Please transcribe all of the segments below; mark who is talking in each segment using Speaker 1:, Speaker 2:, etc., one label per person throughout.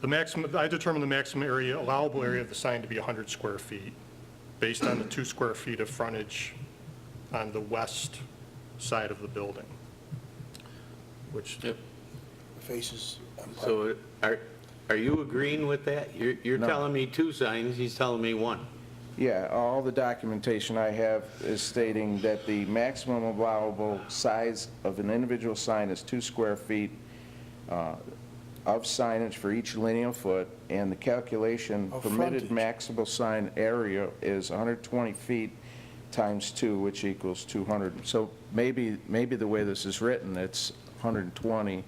Speaker 1: The maximum, I determined the maximum area, allowable area of the sign to be 100 square feet, based on the two square feet of frontage on the west side of the building, which,
Speaker 2: Yep.
Speaker 3: faces. um,
Speaker 2: So are, are you agreeing with that? You're, you're
Speaker 4: No.
Speaker 2: telling me two signs, he's telling me one.
Speaker 4: Yeah, all the documentation I have is stating that the maximum allowable size of an individual sign is two square feet uh, of signage for each linear foot, and the calculation
Speaker 3: Of
Speaker 4: permitted
Speaker 3: frontage.
Speaker 4: maximal sign area is 120 feet times two, which equals 200. So maybe, maybe the way this is written, it's 120.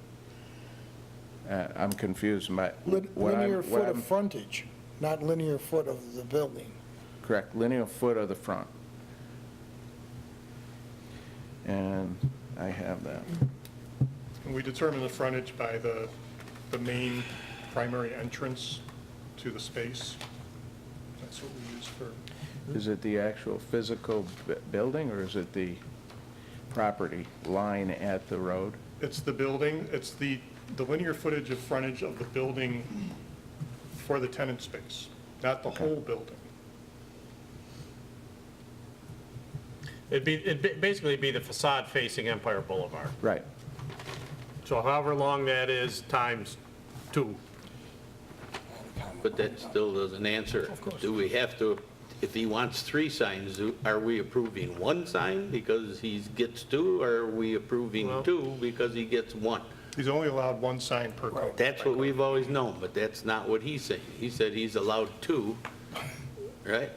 Speaker 4: Uh, I'm confused by
Speaker 3: lin-
Speaker 4: what I'm...
Speaker 3: Linear
Speaker 4: what
Speaker 3: foot
Speaker 4: I'm-
Speaker 3: of frontage, not linear foot of the building.
Speaker 4: Correct, linear foot of the front. And I have that.
Speaker 1: and we determined the frontage by the, the main primary entrance to the space. That's what we use for,
Speaker 4: Is it the actual physical bu- building, or is it the property line at the road?
Speaker 1: it's the building, it's the, the linear footage of frontage of the building for the tenant space, not the whole building.
Speaker 5: It'd be, it'd ba- basically be the facade facing Empire Boulevard.
Speaker 4: Right,
Speaker 5: So however long that is, times two.
Speaker 2: But that still doesn't answer. Do we have to, if he wants three signs, do- are we approving one sign because he gets two? Or are we approving
Speaker 5: Well-
Speaker 2: two because he gets one?
Speaker 1: He's only allowed one sign per code.
Speaker 2: That's what we've always known, but that's not what he's saying. He said he's allowed two, right?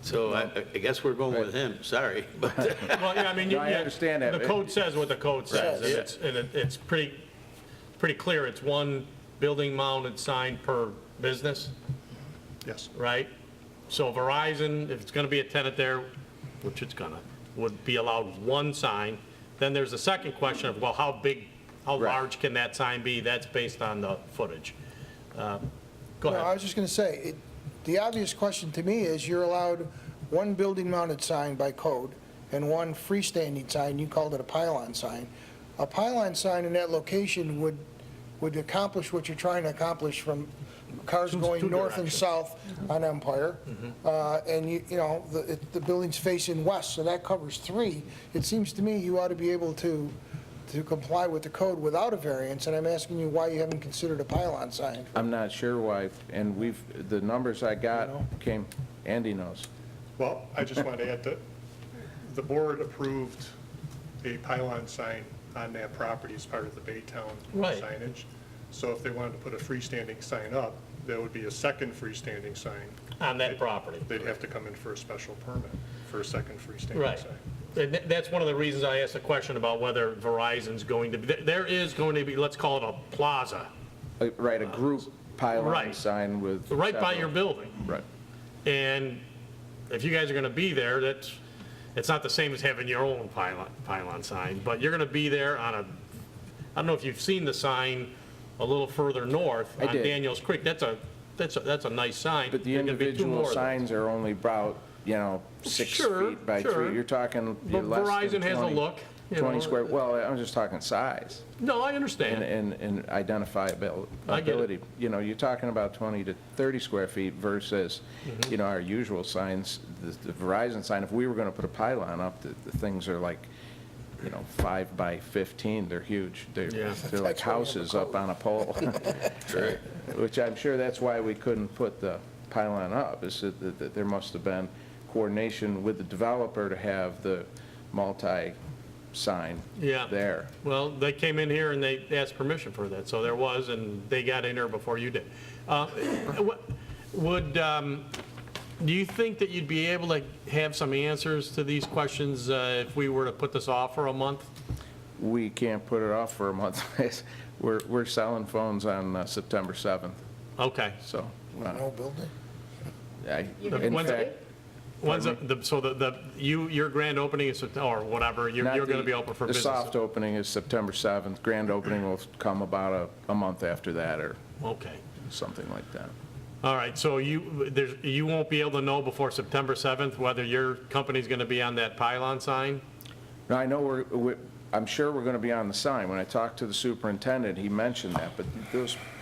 Speaker 2: So I, I guess we're going with him, sorry. But
Speaker 5: Well, yeah, I mean, you-
Speaker 4: No, I
Speaker 5: yeah,
Speaker 4: understand that.
Speaker 5: The code says what the code says, and
Speaker 2: yeah.
Speaker 5: it's, and it- it's pretty, pretty clear. It's one building mounted sign per business,
Speaker 1: Yes.
Speaker 5: right? So Verizon, if it's gonna be a tenant there, which it's gonna, would be allowed one sign. Then there's a second question of, well, how big, how
Speaker 4: Right.
Speaker 5: large can that sign be? That's based on the footage. Uh, Go
Speaker 3: No, I
Speaker 5: ahead.
Speaker 3: was just going to say, it- the obvious question to me is you're allowed one building-mounted sign by code and one freestanding sign, you called it a pylon sign. A pylon sign in that location would, would accomplish what you're trying to accomplish from cars
Speaker 5: Two-
Speaker 3: going
Speaker 5: two
Speaker 3: north and
Speaker 5: directions. Mm-hmm.
Speaker 3: south on Empire. Uh, And you, you know, the, it- the building's facing west, so that covers three. It seems to me you ought to be able to, to comply with the code without a variance, and I'm asking you why you haven't considered a pylon sign.
Speaker 4: I'm not sure why, and we've, the numbers I got
Speaker 3: You know?
Speaker 4: came, Andy knows.
Speaker 1: Well, I just wanted to add that the board approved a pylon sign on that property as part of the Baytown
Speaker 5: Right.
Speaker 1: signage. So if they wanted to put a freestanding sign up, there would be a second freestanding sign.
Speaker 5: On that property.
Speaker 1: They'd have to come in for a special permit for a second freestanding
Speaker 5: Right.
Speaker 1: sign.
Speaker 5: And tha- that's one of the reasons I asked the question about whether Verizon's going to, be there- there is going to be, let's call it a plaza,
Speaker 4: Uh, Right, a group pylon
Speaker 5: Right.
Speaker 4: sign with...
Speaker 5: right by your
Speaker 4: several-
Speaker 5: building.
Speaker 4: Right.
Speaker 5: And if you guys are going to be there, that's, it's not the same as having your own pylon, pylon sign, but you're going to be there on a, I don't know if you've seen the sign a little further north
Speaker 4: I
Speaker 5: on
Speaker 4: did.
Speaker 5: Daniels Creek. That's a, that's a, that's a nice sign.
Speaker 4: But the
Speaker 5: There could be two more
Speaker 4: individual
Speaker 5: of them.
Speaker 4: signs are only about, you know, six
Speaker 5: Sure,
Speaker 4: feet by
Speaker 5: sure.
Speaker 4: three. You're talking you're
Speaker 5: But
Speaker 4: less than 20.
Speaker 5: Verizon has a look, you
Speaker 4: 20
Speaker 5: know.
Speaker 4: square, well, I'm just talking size
Speaker 5: No, I
Speaker 4: and,
Speaker 5: understand.
Speaker 4: and and identifiability.
Speaker 5: I get it.
Speaker 4: ability. You know, you're talking about 20 to 30 square feet versus,
Speaker 5: Mm-hmm.
Speaker 4: you know, our usual signs, the the Verizon sign. If we were going to put a pylon up, the, the things are like, you know, five by 15, they're huge. They're,
Speaker 5: Yeah.
Speaker 3: That's why
Speaker 4: they're like
Speaker 3: we have a
Speaker 4: houses up on a pole.
Speaker 2: Right.
Speaker 4: Which I'm sure that's why we couldn't put the pylon up, is that, that- that there must have been coordination with the developer to have the multi-sign
Speaker 5: Yeah.
Speaker 4: there.
Speaker 5: Well, they came in here and they asked permission for that, so there was, and they got in here before you did. Uh, what- Would, um, do you think that you'd be able to have some answers to these questions uh, if we were to put this off for a month?
Speaker 4: We can't put it off for a month. We're, we're selling phones on uh, September 7th,
Speaker 5: Okay.
Speaker 4: so. uh,
Speaker 3: No building?
Speaker 4: I- In
Speaker 5: When's
Speaker 4: fact,
Speaker 5: it? When's the- the, so the, the, you, your grand opening is, Sept- or whatever, you're,
Speaker 4: not
Speaker 5: you're going to
Speaker 4: the-
Speaker 5: be open for business?
Speaker 4: The soft opening is September 7th. Grand opening will come about a, a month after that or
Speaker 5: Okay.
Speaker 4: something like that.
Speaker 5: All right, so you, there's, you won't be able to know before September 7th whether your company's going to be on that pylon sign?
Speaker 4: Now, I know we're, we- I'm sure we're going to be on the sign. When I talked to the superintendent, he mentioned that, but those